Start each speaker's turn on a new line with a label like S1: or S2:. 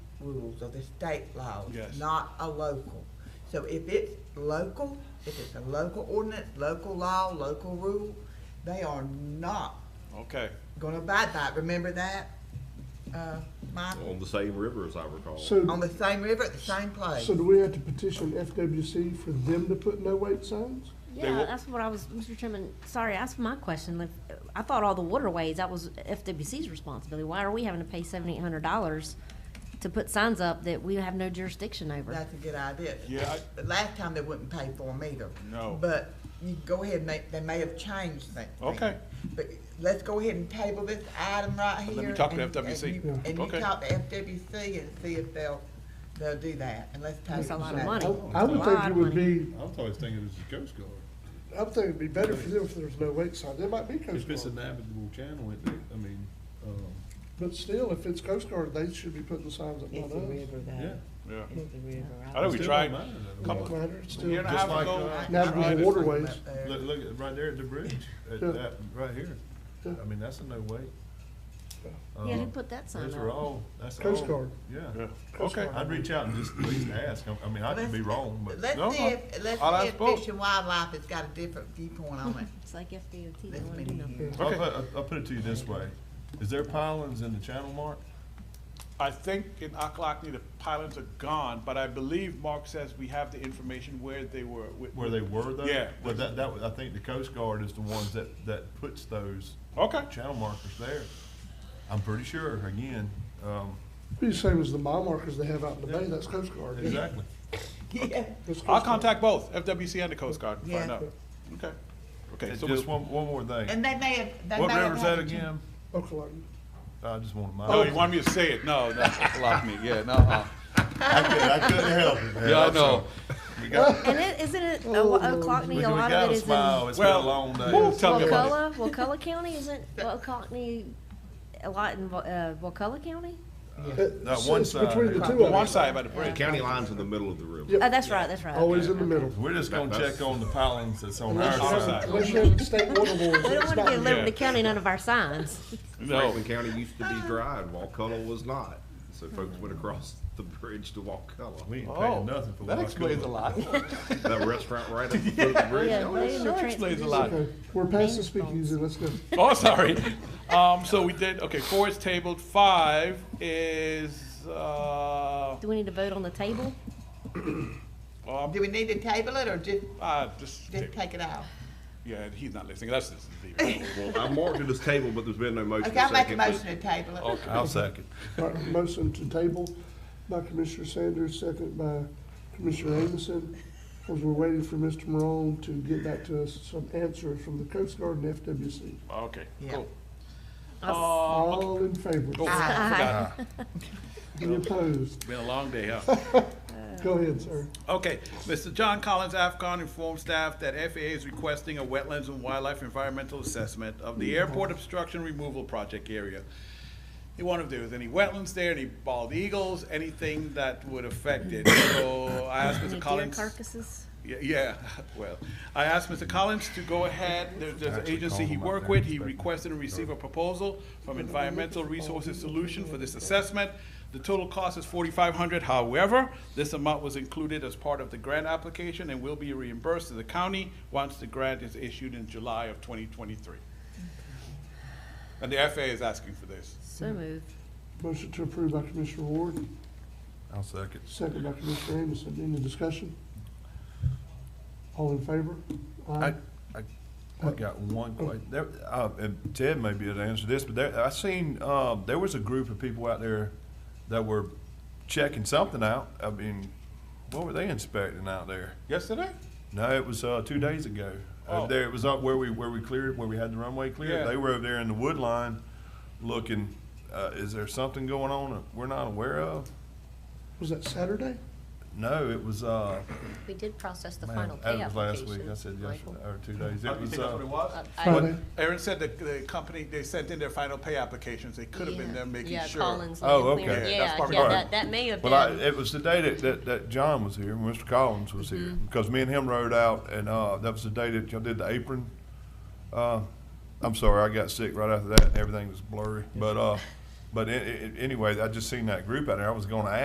S1: rules of the state laws.
S2: Yes.
S1: Not a local. So if it's local, if it's a local ordinance, local law, local rule, they are not
S2: Okay,
S1: gonna abide by it. Remember that, uh, Michael?
S3: on the same river as I recall.
S1: On
S4: So,
S1: the same river, at the same place.
S4: so do we have to petition FWC for them to put no wait signs?
S2: They
S5: Yeah,
S2: will-
S5: that's what I was, Mr. Chairman, sorry, that's my question. Like, I thought all the waterways, that was FWC's responsibility. Why are we having to pay seventy-eight hundred dollars to put signs up that we have no jurisdiction over?
S1: That's a good idea.
S2: Yeah, I-
S1: The last time they wouldn't pay for them either.
S2: No.
S1: But you go ahead and make, they may have changed things.
S2: Okay.
S1: But let's go ahead and table this item right here.
S2: Let me talk to
S1: and-
S2: FWC.
S1: and you- And you
S2: Okay.
S1: talk to FWC and see if they'll, they'll do that, and let's table.
S5: That's a lot of
S1: that.
S5: money.
S4: I I would think it would be,
S6: I was always thinking it was a Coast Guard.
S4: I would think it'd be better for them if there was no wait signs. There might be Coast
S6: If it's a
S4: Guard.
S6: navigable channel, it, I mean, um,
S4: But still, if it's Coast Guard, they should be putting the signs up, not
S7: It's a
S4: us.
S7: river
S6: yeah. uh,
S7: though.
S2: yeah.
S7: It's a river.
S2: I know we
S6: Still
S2: tried,
S6: don't mind it.
S2: couple-
S4: Don't
S2: a
S4: matter, it's
S2: year
S4: still,
S2: and a
S6: Just
S2: half
S6: like,
S2: ago.
S6: uh,
S2: I tried
S4: navigable
S2: it.
S4: waterways.
S6: Look, look, at- right there at the bridge, at
S4: Yeah.
S6: that, right here.
S4: Yeah.
S6: I mean, that's a no wait.
S5: Yeah, who
S6: Um,
S5: put that sign
S6: Those are
S5: up?
S6: all, that's all.
S4: Coast Guard.
S2: Yeah.
S6: Yeah.
S2: Okay,
S6: I'd reach out and just at least ask. I- I mean, I could be wrong, but.
S1: Let's
S2: No,
S1: see
S2: I-
S1: if, let's
S2: I'll
S1: see if
S2: ask both.
S1: Fish and Wildlife has got a different viewpoint on it.
S5: It's like FDOT, they
S1: That's
S5: don't wanna do
S1: been
S5: nothing.
S1: years.
S6: I'll
S2: Okay.
S6: put, I'll- I'll put it to you this way. Is there pilings in the channel mark?
S2: I think in Ocklackney, the pilings are gone, but I believe Mark says we have the information where they were. wi-
S6: Where they were though?
S2: Yeah.
S6: But that, that, was- I think the Coast Guard is the ones that, that puts those
S2: Okay,
S6: channel markers there. I'm pretty sure, again, um,
S4: be the same as the mile markers they have out in the bay, that's Coast Guard.
S6: exactly.
S1: Yeah.
S4: That's Coast
S2: I'll
S4: Guard.
S2: contact both, FWC and the Coast Guard, and find
S1: Yeah.
S2: out. Okay, okay,
S6: And
S2: so
S6: Just
S2: we,
S6: one, one more thing.
S1: And they may have, they may have.
S6: What river's that
S1: had to-
S6: again?
S4: Okalaka.
S6: I just want to mind.
S2: no, oh, you want me to say it? No, no, Ocklackney, yeah, no, uh,
S6: I couldn't, I couldn't help it. man.
S2: yeah, I
S6: I'm
S2: know.
S6: sorry. We got,
S5: And it, isn't it, a
S2: Oh,
S5: lo-
S6: we
S5: Oconee,
S6: we
S5: a lot
S6: got
S5: of
S6: a
S5: it is in
S6: smile. It's been a
S2: Well,
S6: long
S2: woo,
S6: day.
S2: tell me about it.
S5: Wakulla, Wakulla County, isn't Oconee a lot in, Wa- uh, Wakulla County?
S6: That
S4: It's-
S6: one
S4: it's
S6: side.
S4: Between the two of
S2: The one
S4: them,
S2: side by the
S3: The
S2: bridge.
S3: county line's in the middle of the
S4: Yeah.
S3: river.
S5: Oh, that's right, that's right.
S4: always in the middle.
S6: We're just gonna
S3: That's-
S6: check on the pilings that's on
S2: Our
S6: our
S2: side.
S6: side.
S4: Unless you have state water boards,
S5: We don't
S4: it's
S5: wanna
S4: not.
S5: give
S2: Yeah.
S5: Liberty County none of our signs.
S2: No,
S3: Franklin County used to be dry and Walkulla was not. So folks went across the bridge to Walkulla.
S6: We ain't
S2: oh,
S6: paying nothing for.
S2: that
S6: Wakulla.
S2: explains a lot.
S3: That restaurant right at the foot of the bridge.
S5: Yeah,
S3: oh,
S5: they
S3: yeah.
S5: in the
S2: That
S5: trans-
S2: explains a lot.
S4: Okay, We're past the speakeasy, let's go.
S2: Oh, sorry. Um, so we did, okay, four is tabled, five is, uh,
S5: Do we need to vote on the table?
S2: um,
S1: Do we need to table it or just,
S2: uh, just,
S1: just take it out?
S2: yeah, he's not listening, that's just leaving.
S3: Well, I marked it as table, but there's been no motion.
S1: Okay, I'll make a
S3: second, but-
S1: motion to table it.
S6: I'll second.
S4: All right, motion to table by Commissioner Sanders, second by Commissioner Amison. As we're waiting for Mr. Morone to get back to us some answers from the Coast Guard and FWC.
S2: Okay,
S1: Yeah.
S2: cool. Um,
S4: All in favor?
S2: Uh, Oh, forgot.
S4: Any opposed?
S2: Been a long day, huh?
S4: Go ahead, sir.
S2: Okay, Mr. John Collins, AFCON informed staff that FAA is requesting a wetlands and wildlife environmental assessment of the airport obstruction removal project area. They want to, if there was any wetlands there, any bald eagles, anything that would affect it. So I asked
S5: Any
S2: Mr.
S5: deer
S2: Collins.
S5: carcasses?
S2: Yeah, Yeah, well, I asked Mr. Collins to go ahead, there's, there's an
S6: Actually
S2: agency
S6: called
S2: he
S6: him up
S2: worked
S6: there
S2: with,
S6: and
S2: he
S6: spoke to him.
S2: requested and received a proposal from Environmental Resources Solution for this assessment. The total cost is forty-five hundred, however, this amount was included as part of the grant application and will be reimbursed to the county once the grant is issued in July of twenty twenty-three. And the FAA is asking for this.
S6: Mm-hmm.
S5: So moved.
S4: Motion to approve by Commissioner Ward,
S6: I'll second.
S4: second by Commissioner Amison. Any discussion? All in favor?
S6: I, I, I got one question. There, uh, and Ted may be able to answer this, but there, I seen, um, there was a group of people out there that were checking something out. I mean, what were they inspecting out there?
S2: Yesterday?
S6: No, it was, uh, two days ago.
S2: Oh.
S6: Over there, it was up where we, where we cleared, where we had the runway
S2: Yeah.
S6: cleared. They were over there in the wood line looking, uh, is there something going on that we're not aware of?
S4: Was that Saturday?
S6: No, it was, uh,
S5: We did process the
S6: man,
S5: final pay
S6: that was last
S5: application.
S6: week. I said yesterday, or two days.
S2: Oh,
S6: It
S2: you
S6: was,
S2: think that's what it
S6: uh,
S2: was?
S4: Friday.
S2: Aaron said that the company, they sent in their final pay applications, they could have been there making sure.
S5: Yeah, Collins.
S6: Oh,
S5: Land Clear.
S6: okay.
S2: Yeah, that's
S5: Yeah,
S2: probably
S5: yeah,
S6: right.
S5: that, that may have
S6: Well, I,
S5: been,
S6: it was the day that, that, that John was here, Mr. Collins was here, because me and him rode out, and, uh, that was the day that y'all did the apron. Uh, I'm sorry, I got sick right after that, and everything was blurry, but, uh, but a- a- anyway, I just seen that group out there, I was gonna ask.